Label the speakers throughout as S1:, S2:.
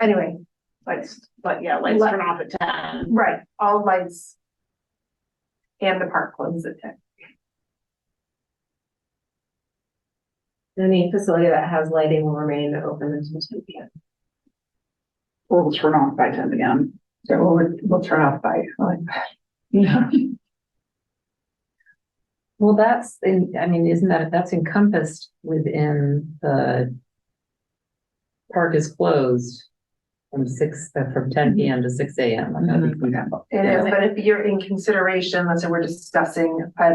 S1: anyway,
S2: Lights, but yeah, lights
S1: Li-
S2: turn off at ten.
S1: right, all lights. And the park closes at ten.
S3: Any facility that has lighting will remain open until two P M.
S2: We'll turn off by ten again.
S4: So we'll, we'll turn off by, like, yeah,
S5: Well, that's, in- I mean, isn't that, that's encompassed within the park is closed from six, uh, from ten PM to six AM. I'm gonna be compatible.
S1: It is, but if you're in consideration, let's say we're discussing, uh,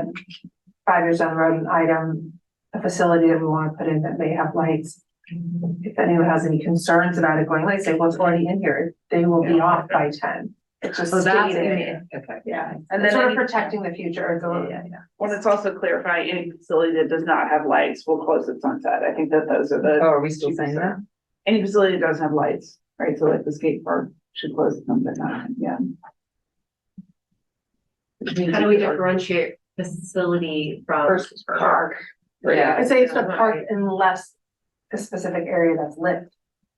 S1: five years down the road, an item, a facility that we want to put in that may have lights. If anyone has any concerns about it going, like, say, well, it's already in here, they will be off by ten. It's just
S3: Oh, that's in
S1: stated,
S3: there. Okay.
S1: yeah,
S2: And
S1: and
S2: then
S1: sort of
S2: any,
S1: protecting the future, it's a
S3: Yeah,
S1: little-
S3: yeah,
S2: when it's also clarifying, any facility that does not have lights will close at sunset. I think that those are
S5: Oh,
S3: Mm-hmm.
S2: the,
S5: are we still saying that?
S2: any facility that doesn't have lights, right? So like the skate park should close at sunset, not, yeah.
S3: yeah.
S6: How do we differentiate facility from?
S2: Versus park.
S5: Yeah.
S1: I say it's a park unless a specific area that's lit.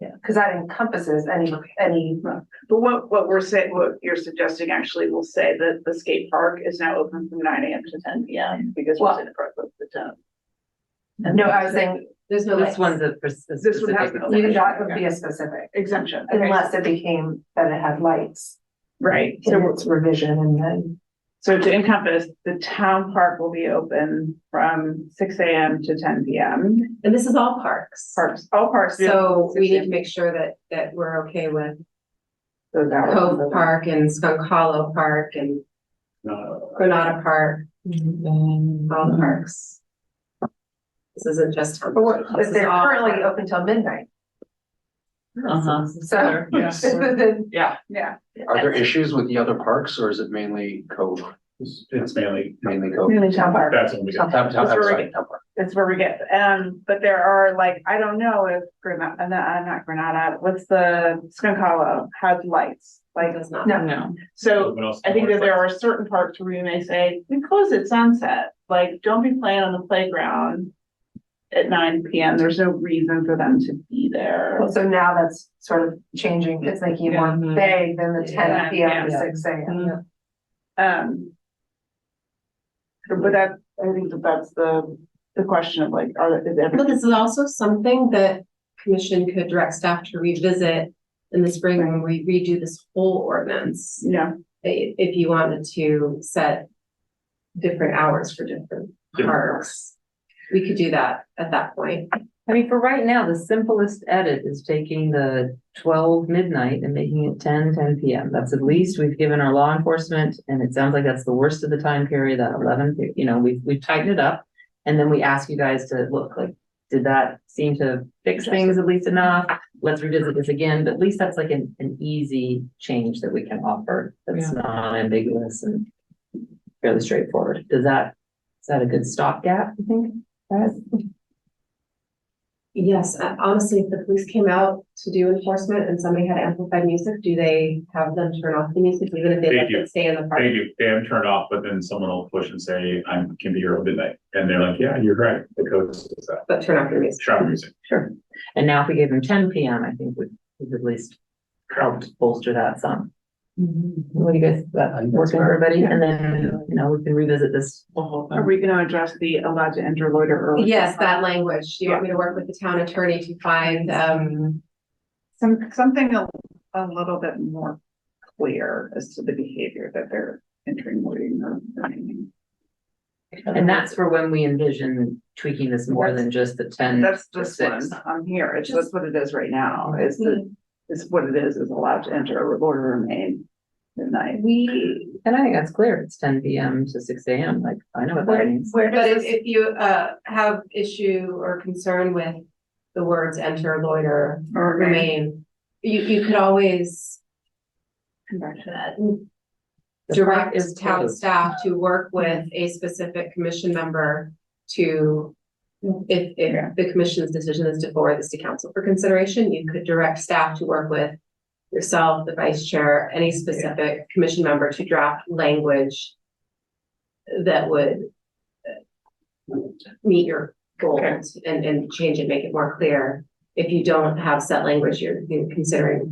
S5: Yeah.
S1: Cause that encompasses any, any,
S2: But what, what we're saying, what you're suggesting actually will say that the skate park is now open from nine AM to ten PM because we're
S1: Well-
S2: saying the park closes at ten.
S1: no, I was saying,
S3: There's no
S5: This
S3: lights.
S5: one's a pers- a
S2: This one has
S5: specific.
S2: no-
S1: even that would be a specific,
S2: Exemption, okay,
S1: unless it became that it had lights.
S2: right.
S1: So it's revision and then,
S2: So to encompass, the town park will be open from six AM to ten PM.
S6: And this is all parks.
S2: Parks, all parks. will be
S3: So we need to
S2: open
S3: make sure that, that we're okay with
S2: those hours.
S3: Cove Park and Skunk Hollow Park and Granada Park, all the
S5: Mm-hmm.
S3: parks. This isn't just.
S1: but we're-
S3: This
S1: but
S3: is
S1: they're
S3: all-
S1: currently open till midnight,
S5: Uh-huh.
S1: so.
S7: Yes.
S1: Then
S2: Yeah, yeah.
S8: Are there issues with the other parks or is it mainly Cove,
S7: It's it's mainly,
S8: mainly Cove?
S2: Mainly town park.
S7: that's when we
S8: Town,
S7: got,
S8: town,
S2: That's where we
S8: sorry,
S2: get-
S8: town park.
S2: That's where we get, um, but there are like, I don't know if Granada, uh, not Granada, what's the Skunk Hollow has lights.
S3: Like,
S2: Like,
S3: does not.
S1: No.
S5: No.
S2: so
S7: Someone else
S2: I think that
S7: can
S2: there are certain parks where you may say, we close at sunset, like, don't be playing on the playground. At nine PM, there's no reason for them to be there.
S1: So now that's sort of changing, it's making it more
S5: Mhm.
S1: vague than the ten
S2: Yeah,
S1: P M to
S5: yeah.
S1: six A M.
S2: Um. But that, I think that that's the, the question of like, are, is
S3: But
S2: everything
S3: this is also something that commission could direct staff to revisit in the spring when we redo this whole ordinance.
S2: you know,
S3: i- if you wanted to set different hours for different
S7: Different
S3: parks. We could do that at that point.
S5: I mean, for right now, the simplest edit is taking the twelve midnight and making it 10, 10 PM. That's at least we've given our law enforcement, and it sounds like that's the worst of the time period, that eleven, you know, we've, we've tightened it up. And then we ask you guys to look, like, did that seem to fix things at least enough? Let's revisit this again, but at least that's like an, an easy change that we can offer. That's not ambiguous and fairly straightforward. Does that, is that a good stopgap, you think? guys?
S3: Yes, uh, honestly, if the police came out to do enforcement and somebody had amplified music, do they have them turn off the music even if they
S7: They
S3: let
S7: do.
S3: it stay in the park?
S7: They do, they have turned off, but then someone will push and say, I can be here all midnight, and they're like, yeah, you're right, the code says that,
S3: But turn off your music.
S7: shop music,
S5: Sure. And now if we gave them ten PM, I think would, would at least help bolster that some. What do you guys,
S8: I
S5: that
S8: think that's
S5: working for
S8: fair.
S5: everybody? And then, you know, we can revisit this.
S2: are we gonna address the allowed to enter loiter early?
S3: Yes, that language. Do you want me to work with the town attorney to find, um,
S2: Some, something a, a little bit more clear as to the behavior that they're entering loitering or anything.
S5: And that's for when we envision tweaking this more than just the ten.
S2: That's
S5: to
S2: this
S5: six.
S2: one, I'm here, it's just what it is right now, is the, is what it is, is allowed to enter or loiter remain midnight.
S3: we,
S5: And I think that's clear. It's ten PM to six AM. Like, I know what that means.
S1: Where
S3: But if,
S1: does this,
S3: if you, uh, have issue or concern with the words enter, loiter,
S2: Or remain.
S3: remain, you, you could always uh,
S2: Come back to that.
S5: The park
S3: direct
S5: is
S3: town
S5: closed.
S3: staff to work with a specific commission member to, if,
S2: Yeah.
S3: if the commission's decision is to forward this to council for consideration, you could direct staff to work with yourself, the vice chair, any specific commission member to draft language that would uh, meet your goals and, and change it, make it more clear. If you don't have set language, you're you're considering